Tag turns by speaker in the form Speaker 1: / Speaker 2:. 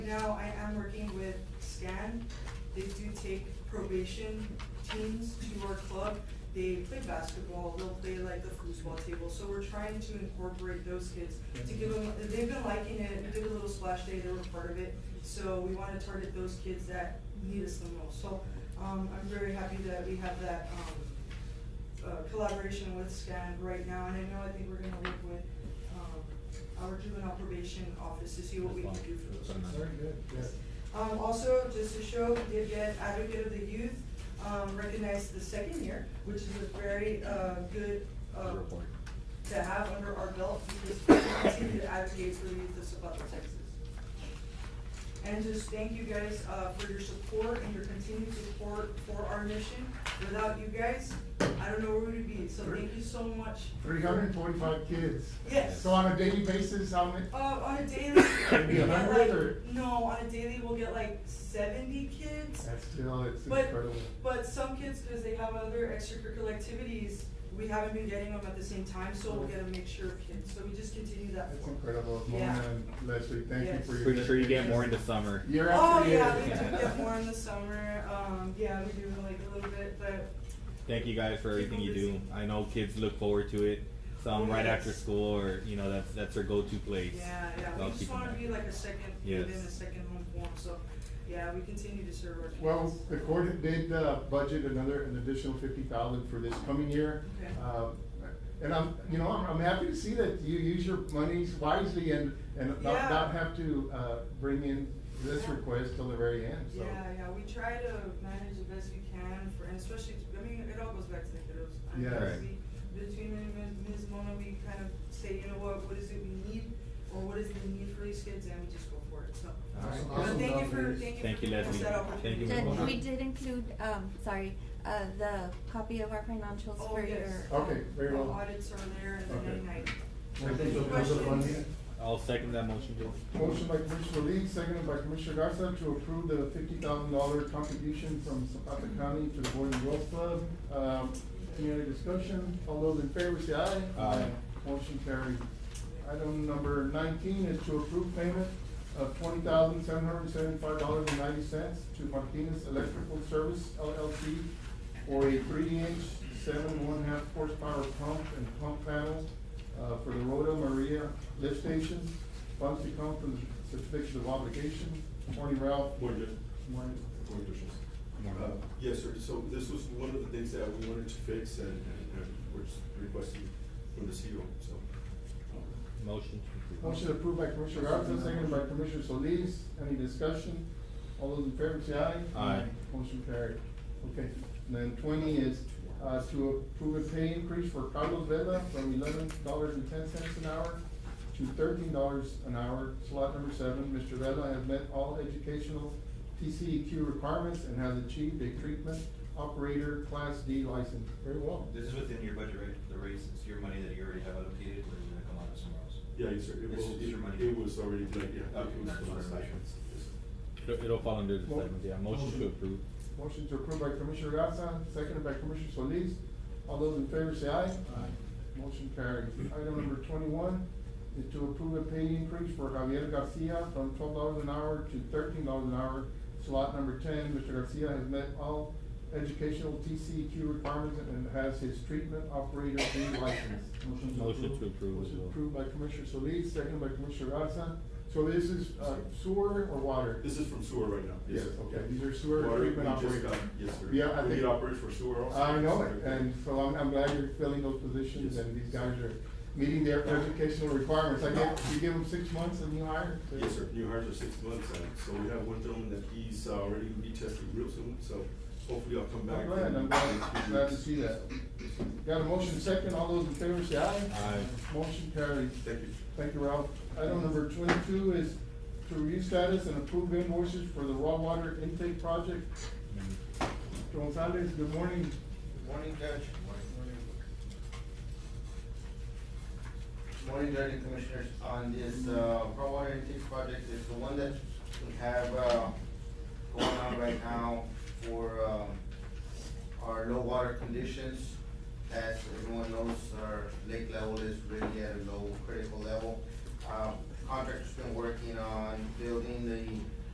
Speaker 1: Now, I am working with SCAN. They do take probation teams to our club. They play basketball, they'll play like the foosball table, so we're trying to incorporate those kids to give them, they've been liking it, we did a little splash day, they were part of it. So we wanna target those kids that need us the most. So, um, I'm very happy that we have that, um, uh, collaboration with SCAN right now, and I know, I think we're gonna work with, um, our juvenile probation office to see what we can do for those kids.
Speaker 2: Very good, yes.
Speaker 1: Um, also, just to show, we did get Advocate of the Youth, um, recognized the second year, which is a very, uh, good, uh,
Speaker 3: Report.
Speaker 1: to have under our belt because we continue to advocate for the youth of Zapata, Texas. And just thank you guys, uh, for your support and your continued support for our mission. Without you guys, I don't know where we'd be, so thank you so much.
Speaker 2: Three hundred and forty-five kids.
Speaker 1: Yes.
Speaker 2: So on a daily basis, how many?
Speaker 1: Uh, on a daily, we
Speaker 2: Yeah,
Speaker 1: get
Speaker 2: hundred
Speaker 1: like,
Speaker 2: or-
Speaker 1: no, on a daily, we'll get like seventy kids.
Speaker 2: That's still, it's
Speaker 1: But,
Speaker 2: incredible.
Speaker 1: but some kids, because they have other extracurricular activities, we haven't been getting them at the same time, so we'll get a mixture of kids, so we just continue that.
Speaker 2: That's
Speaker 1: form.
Speaker 2: incredible.
Speaker 1: Yeah.
Speaker 2: Mona and Leslie, thank you
Speaker 1: Yes.
Speaker 2: for your.
Speaker 3: Pretty sure you get more into summer.
Speaker 2: Year
Speaker 1: Oh,
Speaker 2: after year.
Speaker 1: yeah, we do get more in the summer, um, yeah, we do like a little bit, but,
Speaker 3: Thank you guys for everything you do. I know kids look forward to it. Some
Speaker 1: Oh,
Speaker 3: right
Speaker 1: yes.
Speaker 3: after school, or you know, that's that's their go-to place.
Speaker 1: yeah, yeah, we
Speaker 3: I'll
Speaker 1: just
Speaker 3: keep them
Speaker 1: wanna
Speaker 3: there.
Speaker 1: be like a second,
Speaker 3: Yes.
Speaker 1: within a second home form, so, yeah, we continue to serve our kids.
Speaker 2: Well, the court did, uh, budget another, an additional fifty thousand for this coming year.
Speaker 1: Okay.
Speaker 2: Um, And I'm, you know, I'm, I'm happy to see that you use your monies wisely and, and
Speaker 1: Yeah.
Speaker 2: not, not have to, uh, bring in this
Speaker 1: Yeah.
Speaker 2: request till the very end, so.
Speaker 1: Yeah, yeah, we try to manage the best we can for, and especially, I mean, it all goes back to the kiddos. I mean,
Speaker 2: Yeah.
Speaker 3: Right.
Speaker 1: we- Between me and Ms. Mona, we kind of say, you know what, what is it we need, or what is the need for these kids, and we just go for it, so.
Speaker 2: All right.
Speaker 1: But thank you for,
Speaker 2: Awesome.
Speaker 1: thank you
Speaker 3: Thank
Speaker 1: for
Speaker 3: you,
Speaker 1: giving us
Speaker 3: Leslie.
Speaker 1: that
Speaker 3: Thank
Speaker 1: opportunity.
Speaker 3: you,
Speaker 4: Did-
Speaker 3: Ms. Mona.
Speaker 4: we did include, um, sorry, uh, the copy of our financials
Speaker 1: Oh,
Speaker 4: for your. um,
Speaker 1: yes.
Speaker 2: Okay, very well.
Speaker 1: The audits are there, and then
Speaker 2: Okay.
Speaker 1: at night.
Speaker 2: Motion to
Speaker 1: Any
Speaker 2: approve the
Speaker 1: questions?
Speaker 2: funding.
Speaker 3: I'll second that motion, Joe.
Speaker 2: Motion by Commissioner Lee, seconded by Commissioner Garza to approve the fifty thousand dollar contribution from Zapata County to the Boys and Girls Club. Um, any other discussion? All those in favor say aye.
Speaker 3: Aye.
Speaker 2: Motion carried. Item number nineteen is to approve payment of twenty thousand seven hundred and seventy-five dollars and ninety cents to Martinez Electrical Service LLC for a three-inch, seven, one-half horsepower pump and pump panel uh, for the Rota Maria lift station. Funds to come from the certificate of obligation. Morning, Ralph.
Speaker 5: Morning, Judge.
Speaker 2: Morning.
Speaker 5: Morning, Commissioners.
Speaker 3: Morning.
Speaker 5: Uh, Yes, sir, so this was one of the things that we wanted to fix and, and and we're just requesting from the CEO, so. um,
Speaker 3: Motion. to approve.
Speaker 2: Motion approved by Commissioner Garza, seconded by Commissioner Solis. Any discussion? All those in favor say aye.
Speaker 3: Aye.
Speaker 2: Motion carried. Okay, and then twenty is, uh, to approve a pay increase for Carlos Vela from eleven dollars and ten cents an hour to thirteen dollars an hour, slot number seven. Mr. Vela has met all educational TCEQ requirements and has achieved a treatment operator class D license. Very well.
Speaker 6: This is within your budget, right? The raise, it's your money that you already have allocated, or is it gonna come out of somewhere else?
Speaker 5: Yeah, yes, sir, it
Speaker 6: This
Speaker 5: was,
Speaker 6: is your money.
Speaker 5: it was already, like, yeah,
Speaker 6: Okay,
Speaker 5: it was
Speaker 6: that's
Speaker 5: from last
Speaker 6: what I
Speaker 5: night.
Speaker 6: meant.
Speaker 5: Yes, sir.
Speaker 3: It'll it'll fall under the
Speaker 2: Mo-
Speaker 3: segment, yeah. Motion to
Speaker 2: motion.
Speaker 3: approve.
Speaker 2: Motion to approve by Commissioner Garza, seconded by Commissioner Solis. All those in favor say aye. Aye. Motion carried. Item number twenty-one is to approve a pay increase for Javier Garcia from twelve dollars an hour to thirteen dollars an hour. Slot number ten, Mr. Garcia has met all educational TCEQ requirements and has his treatment operator B license.
Speaker 3: Motion to approve as
Speaker 2: Motion
Speaker 3: well.
Speaker 2: approved by Commissioner Solis, seconded by Commissioner Garza. So this is uh, sewer or water?
Speaker 5: This is from sewer right now, yes.
Speaker 2: Yes,
Speaker 5: sir.
Speaker 2: okay, these are sewer
Speaker 5: Water,
Speaker 2: treatment
Speaker 5: we just
Speaker 2: operators.
Speaker 5: got- Yes, sir.
Speaker 2: Yeah, I
Speaker 5: We
Speaker 2: think-
Speaker 5: need operators for sewer also.
Speaker 2: I know it, and so I'm, I'm glad you're filling those positions,
Speaker 5: Yes.
Speaker 2: and these guys are meeting their educational requirements. I get, you give them six months and you hire?
Speaker 5: Yes, sir, new hires are six months, and so we have one gentleman that he's uh, already gonna be tested real soon, so hopefully I'll come back.
Speaker 2: I'm glad,
Speaker 5: and-
Speaker 2: I'm glad,
Speaker 5: in a few
Speaker 2: glad to
Speaker 5: weeks.
Speaker 2: see that. Got a motion second, all those in favor say aye?
Speaker 3: Aye.
Speaker 2: Motion carries.
Speaker 5: Thank you.
Speaker 2: Thank you, Ralph. Item number twenty-two is to review status and approve invoices for the raw water intake project. Gonzalez, good morning.
Speaker 7: Morning, Judge. Morning, Judge and Commissioners, on this, uh, raw water intake project, it's the one that we have, uh, going on right now for, um, our low water conditions. As everyone knows, our lake level is really at a low critical level. Um, contractor's been working on building the